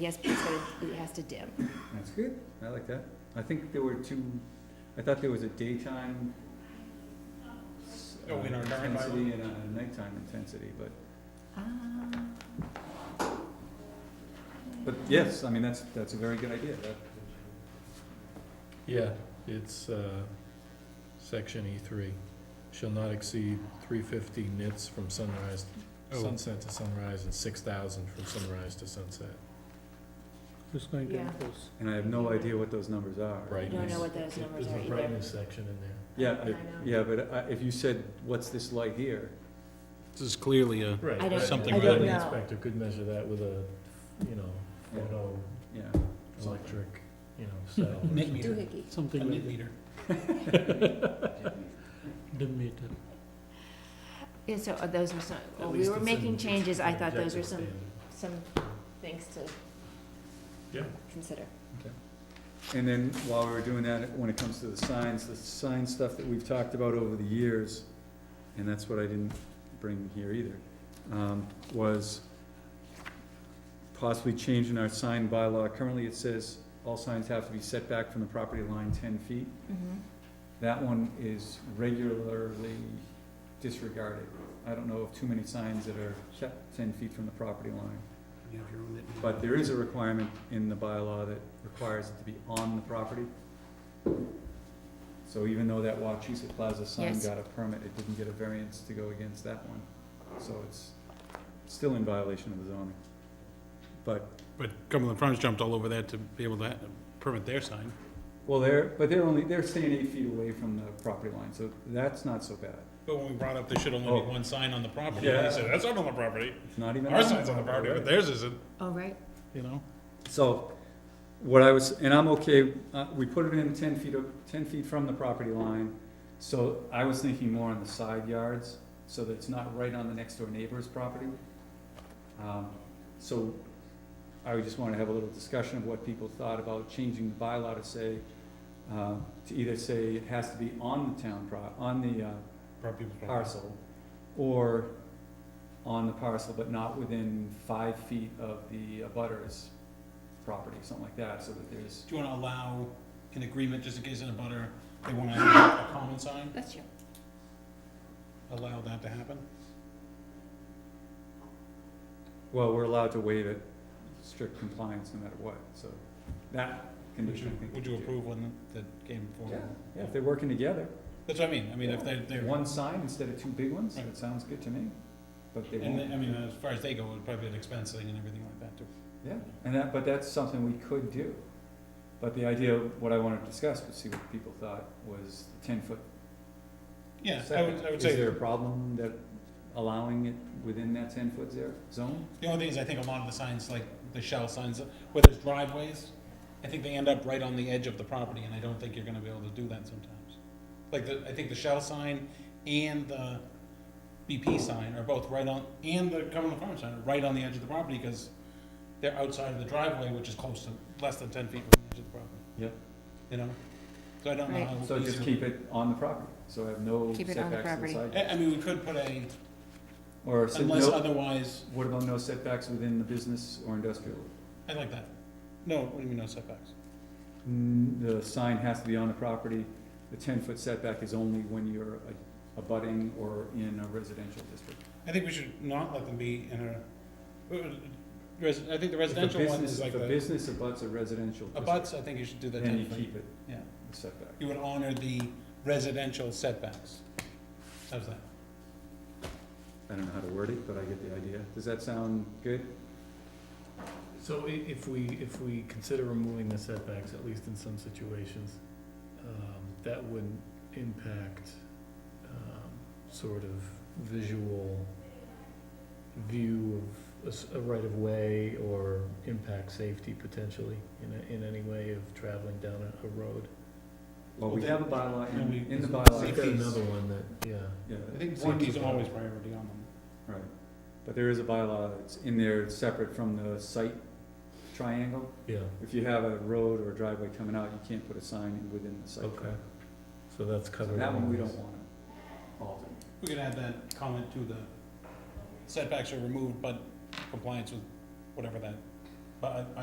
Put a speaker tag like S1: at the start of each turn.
S1: Yes, please, but it has to dim.
S2: That's good, I like that. I think there were two, I thought there was a daytime s-
S3: Oh, in
S2: uh,
S3: our current
S2: intensity and a nighttime intensity, but,
S1: Um,
S2: but yes, I mean, that's, that's a very good idea. That-
S3: Yeah, it's, uh, section E three, shall not exceed three fifty nits from sunrise, sunset to sunrise, and six thousand from sunrise to sunset.
S4: It's going to
S1: Yeah.
S4: increase.
S2: And I have no idea what those numbers are.
S1: I
S3: Right.
S1: don't know what those numbers are
S3: There's a
S1: either.
S3: brightness section in there.
S2: Yeah,
S1: I
S2: I-
S1: know.
S2: yeah, but I- if you said, what's this light here?
S5: This is clearly a,
S1: I don't-
S5: Something I
S3: The
S5: don't
S3: building
S1: know.
S3: inspector could measure that with a, you know,
S2: Yeah.
S3: photo,
S2: Yeah,
S3: electric, you know, cell. or
S5: Nit
S3: something.
S5: meter.
S1: Doohickey.
S5: a
S4: something like
S5: nit meter.
S4: that, dim meter.
S1: Yeah, so uh, those were some,
S3: At
S1: well, we
S3: least
S1: were
S3: it's in-
S1: making
S3: it's
S1: changes, I
S3: an
S1: thought those were
S3: objective
S1: some,
S3: standard.
S1: some things to
S3: Yeah.
S1: consider.
S2: and then while we were doing that, when it comes to the signs, the sign stuff that we've talked about over the years, and that's what I didn't bring here either, um, was possibly changing our sign bylaw. Currently, it says all signs have to be set back from the property line ten feet. That one is regularly disregarded. I don't know of too many signs that are set ten feet from the property line.
S5: You have your own nit meter.
S2: But there is a requirement in the bylaw that requires it to be on the property. So even though that Wachusett Plaza sign
S1: Yes.
S2: got a permit, it didn't get a variance to go against that one. So it's still in violation of the zoning. But,
S5: But Cumberland Farms jumped all over that to be able to ha- permit their sign.
S2: well, they're, but they're only, they're staying eight feet away from the property line, so that's not so bad.
S5: But when we brought up there should only
S2: Oh.
S5: be one sign on the property,
S2: Yeah.
S5: they said, that's not on the property.
S2: It's not even.
S5: Our sign's on the property, but theirs isn't,
S1: Oh, right.
S5: you know?
S2: So, what I was, and I'm okay, uh, we put it in ten feet, of- ten feet from the property line, so I was thinking more on the side yards, so that it's not right on the next door neighbor's property. Um, so, I would just wanna have a little discussion of what people thought about changing the bylaw to say, uh, to either say it has to be on the town pro, on the, uh,
S5: Property was property.
S2: parcel, or on the parcel, but not within five feet of the abutter's property, something like that, so that there's,
S5: Do you wanna allow an agreement, just in case in a butter, they wanna have a common sign,
S1: That's true.
S5: allow that to happen?
S2: well, we're allowed to waive it, strict compliance no matter what, so that
S5: Would you,
S2: condition, I think.
S5: would
S2: we
S5: you
S2: do.
S5: approve one that came
S2: Yeah,
S5: forward?
S2: yeah, if they're working together,
S5: That's what I mean, I mean, if they're, they're,
S2: one sign instead of two big ones,
S5: Right.
S2: that sounds good to me, but they
S5: and,
S2: won't.
S5: I mean, as far as they go, it'd probably be an expense thing and everything like that too.
S2: Yeah, and that, but that's something we could do. But the idea, what I wanted to discuss, but see what people thought, was ten-foot
S5: Yeah, I
S2: Second,
S5: would, I would
S2: Is there a
S5: say,
S2: problem that allowing it within that ten foot zero zone?
S5: the only thing is, I think a lot of the signs, like the shell signs, where there's driveways, I think they end up right on the edge of the property, and I don't think you're gonna be able to do that sometimes. Like, the, I think the shell sign and the BP sign are both right on, and the Cumberland Farm sign are right on the edge of the property, because they're outside of the driveway, which is close to, less than ten feet from the edge of the property.
S2: Yep.
S5: You know, so I don't know
S1: Right.
S5: how.
S2: So just
S5: easy-
S2: keep it on the property, so I have no
S1: Keep
S2: setbacks
S1: it
S2: to
S1: on the
S2: the
S1: property.
S2: side.
S5: I, I mean, we could put a,
S2: Or, se-
S5: unless
S2: no,
S5: otherwise,
S2: what about no setbacks within the business or industrial?
S5: I like that. No, what do you mean, no setbacks?
S2: Mm, The sign has to be on the property, the ten foot setback is only when you're a- abutting or in a residential district.
S5: I think we should not let them be in a, uh, res, I think the
S2: If a
S5: residential one
S2: business-
S5: is like
S2: If a
S5: the,
S2: business abuts a residential district,
S5: abuts, I think you should do the
S2: then
S5: ten
S2: you
S5: feet,
S2: keep it,
S5: yeah.
S2: the setback.
S5: You would honor the residential setbacks. How's that?
S2: I don't know how to word it, but I get the idea. Does that sound good?
S3: So i- if we, if we consider removing the setbacks, at least in some situations, um, that would impact, um, sort of visual view of a s- a right-of-way or impact safety potentially in a, in any way of traveling down a, a road.
S2: Well, we have a bylaw,
S5: And
S2: in,
S5: we-
S2: in the
S5: So
S2: bylaw.
S5: you've got
S2: it's-
S5: another
S3: one that, yeah.
S2: Yeah,
S5: I think
S2: one,
S5: safety's
S2: two,
S5: always priority on them.
S2: Right, but there is a bylaw that's in there separate from the site triangle.
S3: Yeah,
S2: If you have a road or a driveway coming out, you can't put a sign within the site.
S3: Okay.
S2: triangle.
S3: so that's
S2: So that one we don't wanna alter.
S5: We could add that comment to the setbacks are removed, but compliance with whatever that, but I,